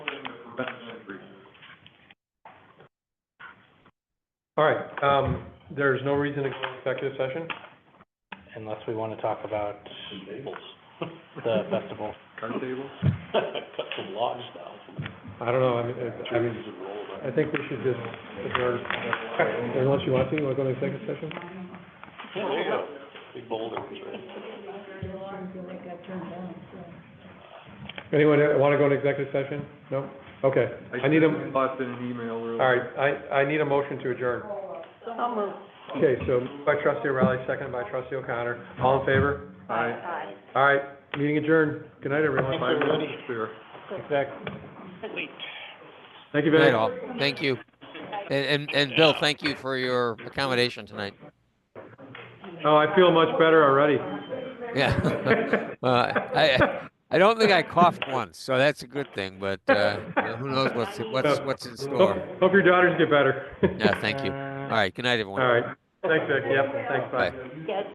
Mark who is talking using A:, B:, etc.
A: prevent entry.
B: All right, um, there's no reason to go into executive session?
C: unless we want to talk about the festival.
A: Card tables?
C: Cut some logs down.
B: I don't know, I mean, I- I mean, I think we should just adjourn. Unless you want to, you want to go into executive session?
C: Yeah, there you go. Big boulders, right?
B: Anyone want to go into executive session? No? Okay, I need a,
A: Thoughts in an email
B: all
A: earlier.
B: right, I, I need a motion to adjourn.
D: So moved.
B: Okay, so moved by trustee O'Reilly, second by trustee O'Connor, all in favor?
A: Aye.
D: Aye.
B: All right, meeting adjourned, good night, everyone.
C: Thanks, everybody.
A: Clear.
B: Exactly.
C: Wait.
B: Thank you,
E: Good
B: Vinny.
E: night, all. Thank you. And, and, and Bill, thank you for your accommodation tonight.
B: Oh, I feel much better already.
E: Yeah. Uh, I, I don't think I coughed once, so that's a good thing, but, uh, who knows what's, what's, what's in
B: Hope,
E: store?
B: hope your daughters get better.
E: Yeah, thank you. All right, good night, everyone.
B: All right, thanks, Vic, yep, thanks, bye.
E: Bye.
D: Yes.